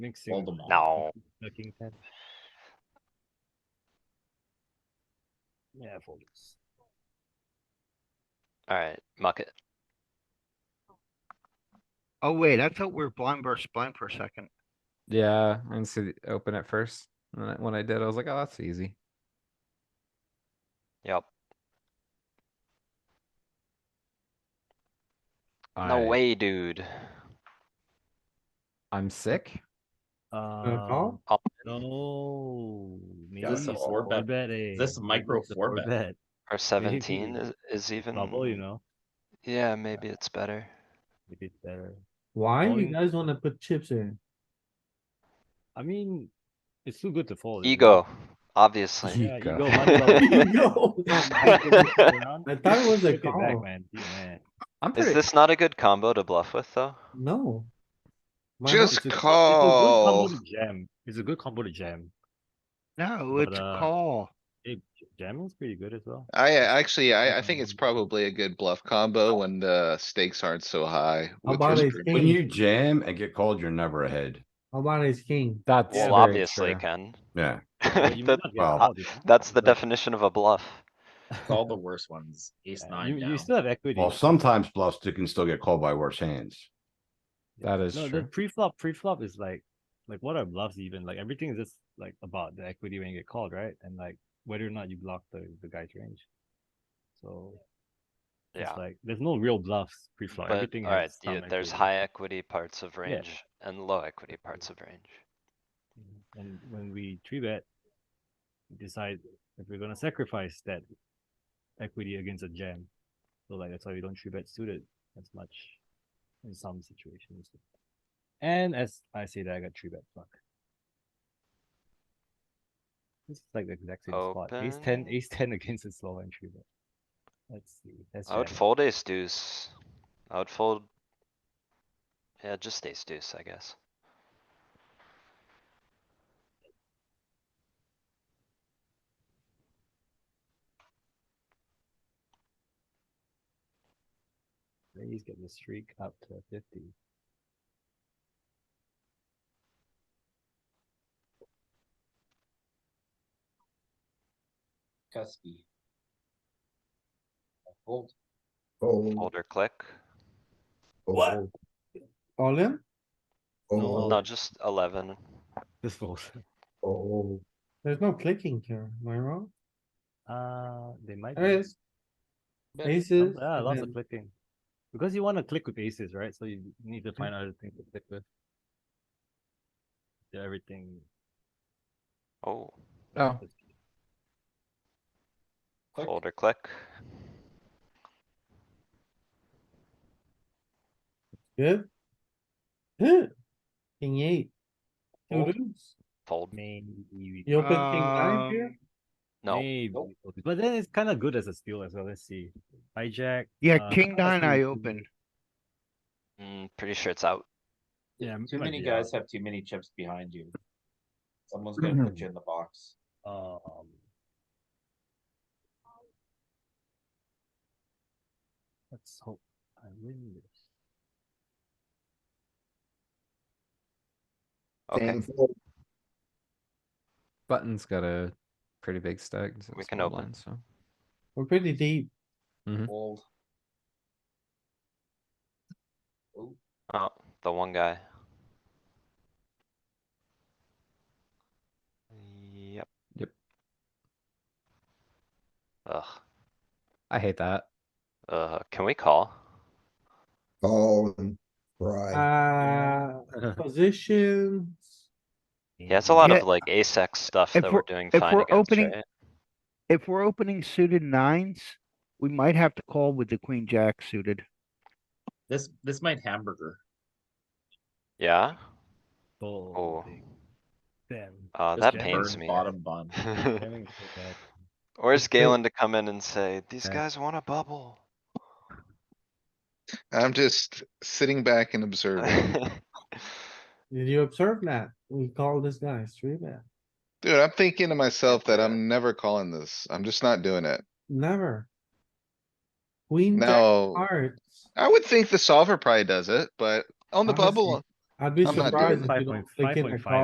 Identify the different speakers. Speaker 1: Next year.
Speaker 2: Voldemort.
Speaker 3: No.
Speaker 1: Fucking ten. Yeah, fold this.
Speaker 3: Alright, muck it.
Speaker 4: Oh wait, I thought we were blind versus blind for a second.
Speaker 5: Yeah, I didn't see the open at first. And then when I did, I was like, oh, that's easy.
Speaker 3: Yep. No
Speaker 5: I-
Speaker 3: way, dude.
Speaker 5: I'm sick.
Speaker 1: Um,
Speaker 3: Oh.
Speaker 1: no.
Speaker 2: Is this a
Speaker 1: maybe
Speaker 2: four bet?
Speaker 1: eh?
Speaker 2: Is this a micro
Speaker 1: Maybe it's a
Speaker 2: four bet?
Speaker 3: Or seventeen
Speaker 1: Maybe.
Speaker 3: is, is
Speaker 4: Mm.
Speaker 3: even.
Speaker 1: Bubble, you know,
Speaker 3: Yeah, maybe it's better.
Speaker 1: maybe it's better.
Speaker 6: Why you
Speaker 1: Going-
Speaker 6: guys wanna put chips in?
Speaker 1: I mean, it's too good to fold. isn't it?
Speaker 3: Ego, obviously.
Speaker 1: Yeah,
Speaker 5: Ego.
Speaker 1: ego, money, bubble.
Speaker 6: Yo, I thought it was a
Speaker 1: Take it back,
Speaker 6: call.
Speaker 1: man. Yeah.
Speaker 5: I'm pretty.
Speaker 3: Is this not a good combo to bluff with, though?
Speaker 6: No. Why not?
Speaker 1: It's a
Speaker 7: Just
Speaker 1: good- it's a good
Speaker 4: Oh.
Speaker 7: call.
Speaker 1: combo to Jam, it's a good combo to jam.
Speaker 4: No,
Speaker 1: But,
Speaker 4: it's a
Speaker 1: uh,
Speaker 4: call.
Speaker 1: It, jamming's pretty good as well.
Speaker 7: I uh, actually, I, I think it's
Speaker 1: Um,
Speaker 7: probably a good bluff combo when the stakes aren't so high. with
Speaker 6: about
Speaker 7: your
Speaker 6: ace
Speaker 7: group.
Speaker 8: When
Speaker 6: King.
Speaker 8: you jam and get called, you're never ahead.
Speaker 6: How about ace king?
Speaker 5: That's
Speaker 3: Well,
Speaker 5: very
Speaker 3: obviously,
Speaker 5: true.
Speaker 3: Ken.
Speaker 8: Yeah,
Speaker 1: But you may
Speaker 3: That-
Speaker 1: not get
Speaker 8: well,
Speaker 1: called, you know?
Speaker 3: that's the
Speaker 1: But,
Speaker 3: definition of a bluff.
Speaker 2: It's all the worst ones. Ace
Speaker 1: uh,
Speaker 2: nine
Speaker 1: You, you
Speaker 2: down.
Speaker 1: still have equity.
Speaker 8: well, sometimes bluffs too can still get called by worse hands.
Speaker 5: That is
Speaker 1: No, the
Speaker 5: true.
Speaker 1: pre-flop, pre-flop is like, like what are bluffs even? Like everything is just like about the equity when you get called, right? And like whether or not you block the, the guy's range. So.
Speaker 3: Yeah.
Speaker 1: It's like, there's no real bluffs pre-flop,
Speaker 3: But,
Speaker 1: everything
Speaker 3: alright,
Speaker 1: has some
Speaker 3: there's
Speaker 1: equity.
Speaker 3: high equity parts of range and low equity parts of range.
Speaker 1: And when we three bet, we decide if we're gonna sacrifice that equity against a jam. So like that's why we don't three bet suited as much in some situations. And as I say that I got three bet fuck. This is like the exact same spot. Ace ten,
Speaker 3: Open.
Speaker 1: ace ten against the slow and three bet. Let's see. That's
Speaker 3: I would
Speaker 1: jamming.
Speaker 3: fold ace deuce. I would fold. Yeah, just ace deuce, I guess.
Speaker 1: He's getting the streak up to fifty.
Speaker 2: Cuspy. Fold.
Speaker 3: Fold or click.
Speaker 6: What? Oh. All in?
Speaker 1: Oh.
Speaker 3: No, just eleven.
Speaker 1: This falls.
Speaker 6: There's no clicking here, am I wrong?
Speaker 1: Uh, they might.
Speaker 6: There
Speaker 1: be.
Speaker 6: is.
Speaker 2: Yeah,
Speaker 6: Aces.
Speaker 1: Yeah,
Speaker 6: and
Speaker 1: lots
Speaker 6: then-
Speaker 1: of clicking. Because you wanna click with aces, right? So you need to find other things to click with. Do everything.
Speaker 3: Oh,
Speaker 5: Oh,
Speaker 2: Click.
Speaker 3: fold or click.
Speaker 6: Good. Good. King eight.
Speaker 1: Oh.
Speaker 6: Two
Speaker 3: Fold.
Speaker 6: deuce.
Speaker 3: Fold.
Speaker 1: Maybe.
Speaker 6: You open king nine here?
Speaker 4: Um,
Speaker 3: No,
Speaker 1: maybe we fold it. But then it's kinda good as a steal as well. Let's see. Hijack.
Speaker 4: Yeah,
Speaker 1: uh,
Speaker 4: king nine
Speaker 1: honestly,
Speaker 4: I open.
Speaker 3: mm, pretty sure it's out.
Speaker 1: Yeah.
Speaker 2: Too
Speaker 1: might
Speaker 2: many
Speaker 1: be out.
Speaker 2: guys have too many chips behind you. Someone's gonna put you in the box.
Speaker 1: Um. Let's hope I win this.
Speaker 3: Okay,
Speaker 5: button's got a pretty big stack. so
Speaker 3: We
Speaker 5: it's
Speaker 3: can
Speaker 5: not
Speaker 3: open.
Speaker 5: blind, So
Speaker 6: We're pretty deep.
Speaker 2: Fold.
Speaker 3: oh, the one guy. Yep.
Speaker 5: Yep.
Speaker 3: Ugh,
Speaker 5: I hate that.
Speaker 3: uh, can we call?
Speaker 9: Call and Right.
Speaker 6: Uh, positions.
Speaker 3: Yeah, it's a lot
Speaker 4: Yeah,
Speaker 3: of like ace X stuff
Speaker 4: if
Speaker 3: that
Speaker 4: we're-
Speaker 3: we're doing
Speaker 4: if
Speaker 3: fine
Speaker 4: we're
Speaker 3: against,
Speaker 4: opening-
Speaker 3: right?
Speaker 4: If we're opening suited nines, we might have to call with the queen jack suited.
Speaker 2: This, this might hamburger.
Speaker 3: Yeah,
Speaker 1: Oh.
Speaker 3: oh,
Speaker 1: Damn.
Speaker 3: uh,
Speaker 1: Just
Speaker 3: that
Speaker 1: get
Speaker 3: pains
Speaker 2: Burn
Speaker 3: me.
Speaker 2: Bottom bun.
Speaker 1: Jamming is so bad.
Speaker 3: Where's
Speaker 6: Just play-
Speaker 3: Galen to come in and say, these
Speaker 1: Yeah.
Speaker 3: guys want a bubble?
Speaker 7: I'm just sitting back and observing.
Speaker 6: Did you observe that? We call this guy three bet.
Speaker 7: Dude, I'm thinking to myself that I'm never calling this. I'm just not doing it.
Speaker 6: Never. Queen jack
Speaker 7: No,
Speaker 6: hearts.
Speaker 7: I would think the solver probably does it, but on the
Speaker 6: Honestly,
Speaker 7: bubble,
Speaker 6: I'd be
Speaker 7: I'm not
Speaker 6: surprised
Speaker 7: doing it.
Speaker 6: if you don't click in a
Speaker 1: 5.5.
Speaker 6: call.